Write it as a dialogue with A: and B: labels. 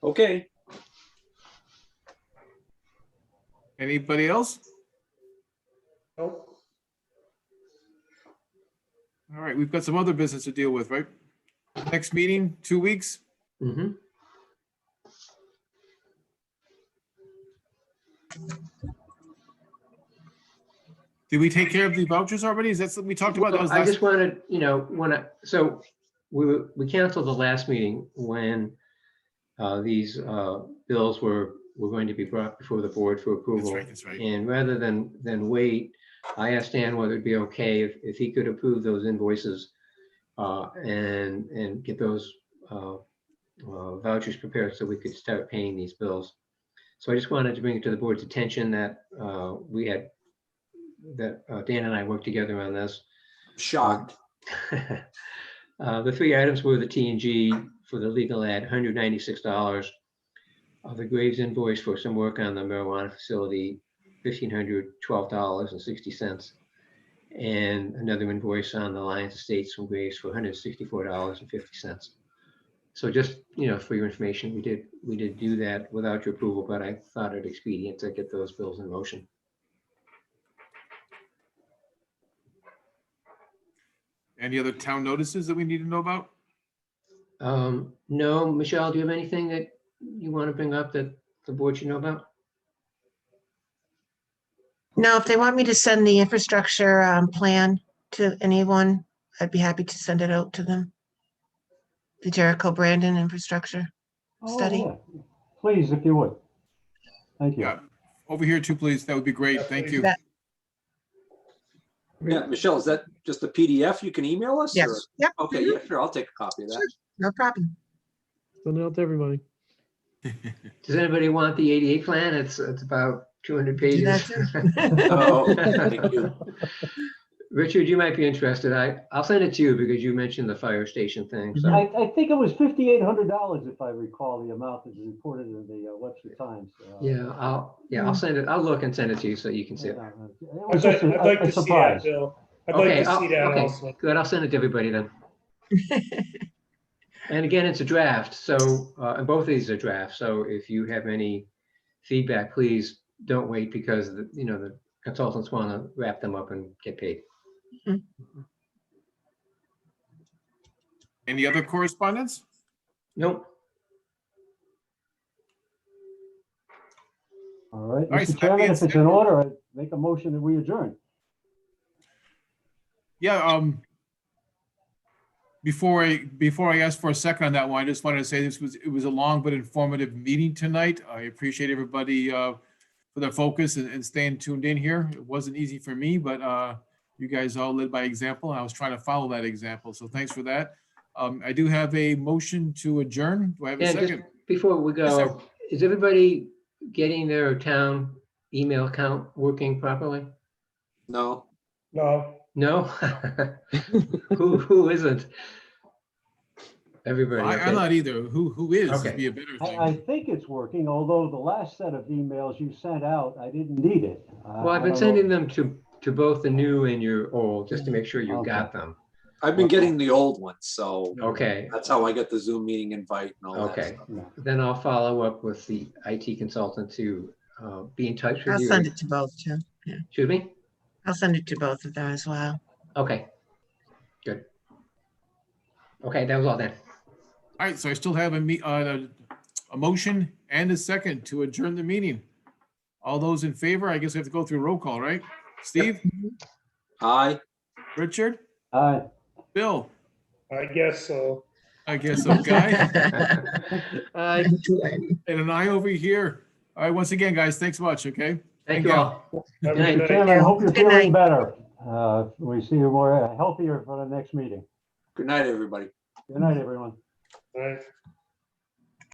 A: Okay,
B: Anybody else?
C: Nope.
B: All right, we've got some other business to deal with, right? Next meeting, two weeks?
C: Mhm.
B: Did we take care of the vouchers already? Is that something we talked about? That was
C: I
B: last,
C: just wanted, you know, when I, so we, were- we canceled the last meeting when uh, these uh, bills were, were going to be brought before the board for
B: that's
C: approval.
B: right, that's right.
C: And rather than, than wait, I asked Dan whether it'd be okay if, if he could approve those invoices uh, and, and get those uh, uh, vouchers prepared so we could start paying these bills. So I just wanted to bring it to the board's attention that uh, we had, that uh, Dan and I worked together on this.
A: shocked.
C: Uh, The three items were the T and G for the legal ad, hundred ninety-six dollars. Uh, The Graves invoice for some work on the marijuana facility, fifteen hundred twelve dollars and sixty cents. And another invoice on the Lions Estates from Graves for hundred sixty-four dollars and fifty cents. So just, you know, for your information, we did, we did do that without your approval, but I thought it expedient to get those bills in motion.
B: Any other town notices that we need to know about?
C: Um, no, Michelle, do you have anything that you want to bring up that the board should know about?
D: No, if they want me to send the infrastructure um, plan to anyone, I'd be happy to send it out to them. The Jericho Brandon infrastructure.
E: Oh,
D: study.
E: yeah. Please, if you would. Thank you.
B: Yeah. Over here too, please. That would be great. Thank you.
D: Yeah.
A: Uh, Yeah, Michelle, is that just a PDF you can email us? or-
D: Yes, yep,
A: Okay, yeah, sure, I'll take a copy of that.
D: no problem.
F: Send it out to everybody.
C: Does anybody want the ADA plan? It's, it's about 200 pages.
A: Oh, thank you.
C: Richard, you might be interested. I, I'll send it to you because you mentioned the fire station thing. So,
E: I, I think it was fifty-eight hundred dollars if I recall the amount that is reported in the uh, Webster Times. uh,
C: yeah, I'll, yeah, I'll send it. I'll look and send it to you so you can see it.
E: uh, It was
G: I'd
E: just
G: like
E: a
G: I'd like
E: a- a
G: to see that,
E: surprise.
G: Bill. I'd
C: Okay,
G: like to
C: I'll-
G: see that
C: okay,
G: also.
C: good. I'll send it to everybody then. And again, it's a draft, so, uh, and both of these are drafts, so if you have any feedback, please don't wait because, the you know, the consultants want to wrap them up and get paid.
B: Any other correspondence?
C: Nope.
G: uh,
E: All right,
B: All right, so
E: Mr.
B: that
E: Chairman,
B: means
E: if it's
B: that-
E: in order, I make a motion that we adjourn.
B: Yeah, um, before I, before I ask for a second on that one, I just wanted to say this was, it was a long but informative meeting tonight. I appreciate everybody, uh, for their focus and, and staying tuned in here. It wasn't easy for me, but, uh, you guys all led by example. and I was trying to follow that example. So thanks for that. Um, I do have a motion to adjourn. Do I have a
C: And just
B: second?
C: before we
B: Yes, sir.
C: go, is everybody getting their town email account working properly?
A: No,
G: No,
C: No? Who, who isn't? Everybody.
B: I,
C: okay.
B: I'm not either. Who, who is? would
C: Okay.
B: Be a better
E: I,
B: thing.
E: I think it's working, although the last set of emails you sent out, I didn't need it. Uh,
C: Well, I've been sending them to, to both the new and your old, just to make sure you
E: Okay.
C: got them.
A: I've been getting the old ones, so
C: Okay,
A: that's how I get the Zoom meeting invite and all that
C: Okay.
A: stuff.
E: them.
C: then I'll follow up with the IT consultant to uh, be in touch
D: I'll
C: with you.
D: send it to both, too.
C: Excuse me?
D: I'll send it to both of them as well.
C: Okay, good. Okay, that was all then.
B: All right, so I still have a me, uh, a motion and a second to adjourn the meeting. All those in favor, I guess we have to go through roll call, right? Steve,
A: Hi,
B: Richard,
E: All right,
B: Bill,
G: I guess so.
B: I guess, so, Guy,
F: Aye.
B: and an eye over here. All right, once again, guys, thanks much, okay?
C: Thank you all.
G: Have
C: Good
G: a
C: night.
E: Mr.
G: good night.
E: Chairman, I hope you're
D: Good night.
E: feeling better. Uh, We see you more uh, healthier for the next meeting.
A: good night, everybody.
E: Good night, everyone.
G: Bye.